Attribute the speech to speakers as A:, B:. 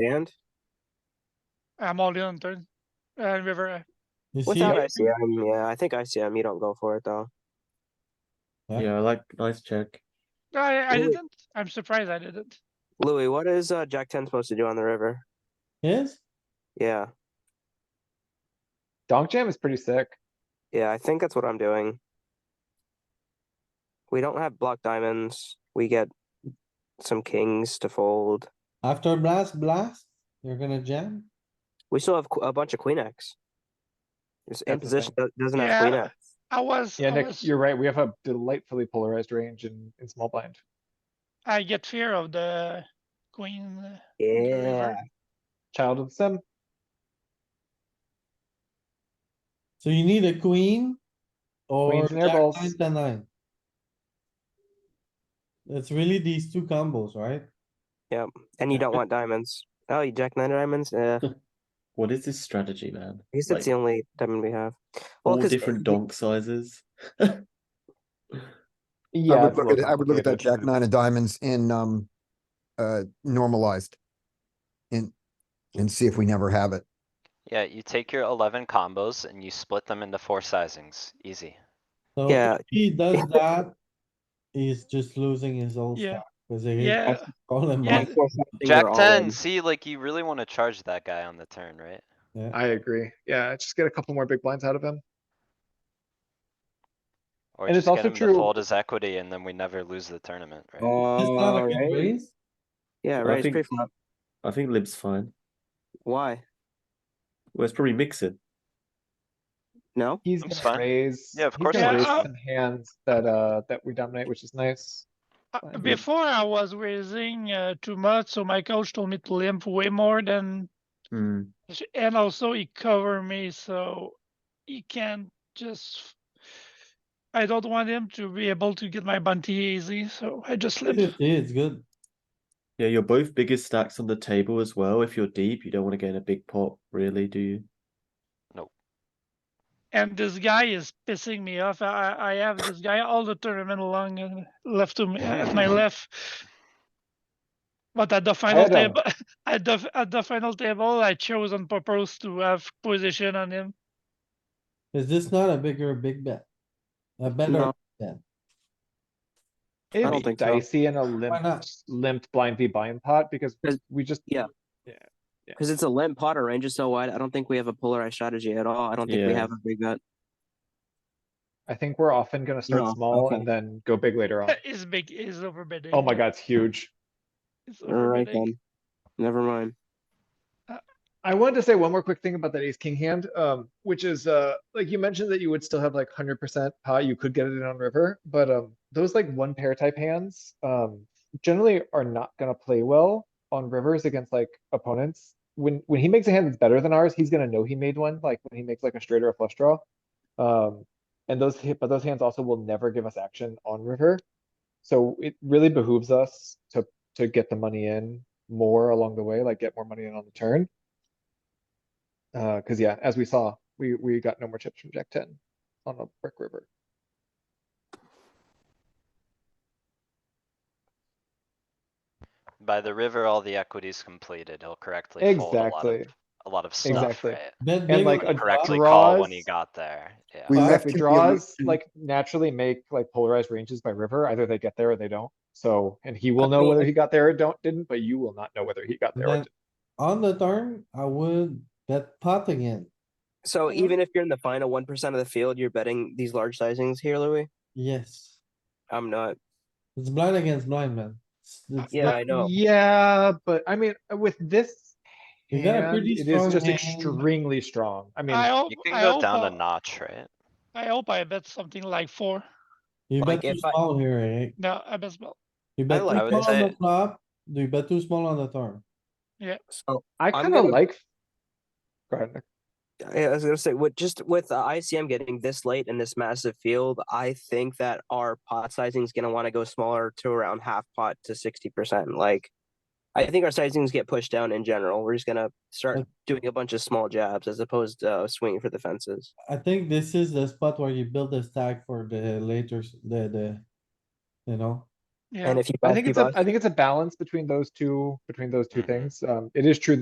A: And?
B: I'm all in on turn. And river,
C: You see,
D: Without-
C: yeah,
A: ICM, yeah, I think ICM, you don't go for it though.
C: Yeah.
D: Yeah, I like nice check.
B: I, I
A: Ooh.
B: didn't. I'm surprised I didn't.
A: Louis, what is uh, Jack 10 supposed to do on the river?
C: yes,
A: Yeah,
E: Donk jam is pretty sick.
A: yeah, I think that's what I'm doing. We don't have block diamonds. We get some kings to fold.
C: after blast, blast, you're gonna jam.
A: We still have qu- a bunch of queen X. It's in
E: That's the
A: position do- doesn't have
B: Yeah.
A: queen X.
B: I was,
E: Yeah,
B: I
E: Nick,
B: was,
E: you're right. We have a delightfully polarized range in, in small blind.
B: I get fear of the queen. uh, the river.
A: Yeah,
E: Child of the sim.
C: So you need a queen or
E: Queens and air
C: jack
E: balls.
C: nine, ten, nine. It's really these two combos, right?
A: and you don't want diamonds. Oh, you Jack nine diamonds? Yeah, I
D: What is this strategy, man?
A: guess that's
D: Like,
A: the only diamond we have. Well,
D: all
A: 'cause
D: different donk sizes.
E: Yeah.
F: I would
E: it's a
F: look
E: little
F: at, I would look at that
E: complicated.
F: jack nine of diamonds in, um, uh, normalized. And, and see if we never have it.
G: Yeah, you take your eleven combos and you split them into four sizings, easy.
C: So
A: Yeah.
C: if he does that, he's just losing his old
B: Yeah.
C: stuff. Cause they
B: Yeah.
C: call him
B: Yeah.
C: out.
G: Jack
A: all in.
G: ten, see, like, you really wanna charge that guy on the turn, right?
C: Yeah,
E: I agree. Yeah, just get a couple more big blinds out of him.
G: Or
E: And it's
G: just get
E: also
G: him to
E: true-
G: fold his equity and then we never lose the tournament, right?
C: That's not a
A: Oh,
C: good
A: right.
C: raise.
A: Yeah,
D: I
A: right.
D: think-
A: Pre flop.
D: I think Lib's fine.
A: Why?
D: Well, it's probably mixing.
A: No?
E: He's
G: Looks
E: gonna
G: fine.
E: raise.
G: Yeah, of
E: he's
G: course
E: gonna
B: it
E: raise
B: is.
E: some Hands that, uh, that we dominate, which is nice.
B: Uh,
E: I agree.
B: Before I was raising uh, too much, so my coach told me to limp way more than,
D: Hmm.
B: and also he cover me, so he can't just. I don't want him to be able to get my bounty easy, so I just limp.
C: Yeah, It's good.
D: Yeah, you're both biggest stacks on the table as well. If you're deep, you don't want to get in a big pot, really, do you?
B: And this guy is pissing me off. I I I have this guy all the tournament long uh, left to me at my left. But at the final
E: had a-
B: table, at the at the final table, I chose on purpose to have position on him.
C: Is this not a bigger big bet? A better,
A: No. don't
E: It'd be
A: think so.
E: dicey in a limp,
C: not?
E: limped blind v blind pot because
A: 'Cause-
E: we just.
A: yeah. Because it's a limp pot, our range is so wide. I don't think we have a polarized strategy at all. I don't think we
D: Yeah.
A: have a big bet.
E: I think we're often gonna
A: No,
E: start small
A: okay.
E: and then go big later on.
B: Is big is overbidding.
E: Oh my god, it's huge.
B: It's
A: All right
B: overbidding.
A: then. Never mind.
E: I wanted to say one more quick thing about that ace king hand, um, which is, uh, like you mentioned that you would still have like hundred percent pot, you could get it in on river, but, um, those like one pair type hands, um, generally are not gonna play well on rivers against like opponents. When, when he makes a hand that's better than ours, he's gonna know he made one, like when he makes like a straight or a flush draw. Um, and those, hit- but those hands also will never give us action on river. So it really behooves us to, to get the money in more along the way, like get more money in on the turn. Uh, cuz yeah, as we saw, we, we got no more chips from Jack ten on a brick river.
G: By the river, all the equity's completed, he'll correctly fold a lot of,
E: Exactly.
G: a lot of stuff,
E: Exactly.
G: right?
C: bet
E: And
C: big
E: like
C: or
G: He'll
E: a
C: not,
G: Correctly call when he
E: draws-
G: got there, yeah.
F: We
E: Uh,
F: left
E: if we
F: it the
E: draws,
F: illusion-
E: like naturally make like polarized ranges by river, either they get there or they don't. So, and he will know whether he got there or don't, didn't, but you will not know whether he got there or
C: Then
E: didn't.
C: on the turn, I would bet pot again.
A: So even if you're in the final one percent of the field, you're betting these large sizings here, Louis.
C: Yes,
A: I'm not.
C: it's blind against blind, man. It's- it's
A: Yeah,
C: not-
A: I know.
E: Yeah, but I mean, with this
C: You got a
E: hand,
C: pretty
E: it is
C: strong
E: just
C: hand.
E: extremely strong. I mean,
B: I hope
G: You can
B: I
G: go
B: hope
G: down
B: I-
G: a notch, right?
B: I hope I bet something like four.
C: You
A: Like,
C: bet too
A: if I-
C: small here, Eric.
B: No, I bet small.
C: You bet
A: like
C: too
G: this.
C: small on the
G: I-
C: flop, you bet too small on the turn.
A: So
E: I
A: I'm
E: kinda
A: gonna-
E: like. Go ahead, Nick.
A: I I was gonna say, with just with uh, ICM getting this late in this massive field, I think that our pot sizing is gonna want to go smaller to around half pot to sixty percent. Like, I think our sizings get pushed down in general. We're just gonna start
C: Uh,
A: doing a bunch of small jabs as opposed to uh, swinging for the fences.
C: I think this is the spot where you build the stack for the later, s- the, the, you know,
B: Yeah.
A: And if you
E: I
A: guys
E: think
A: keep
E: it's a,
A: us-
E: I think it's a balance between those two, between those two
G: Mhm.
E: things. Um, it is true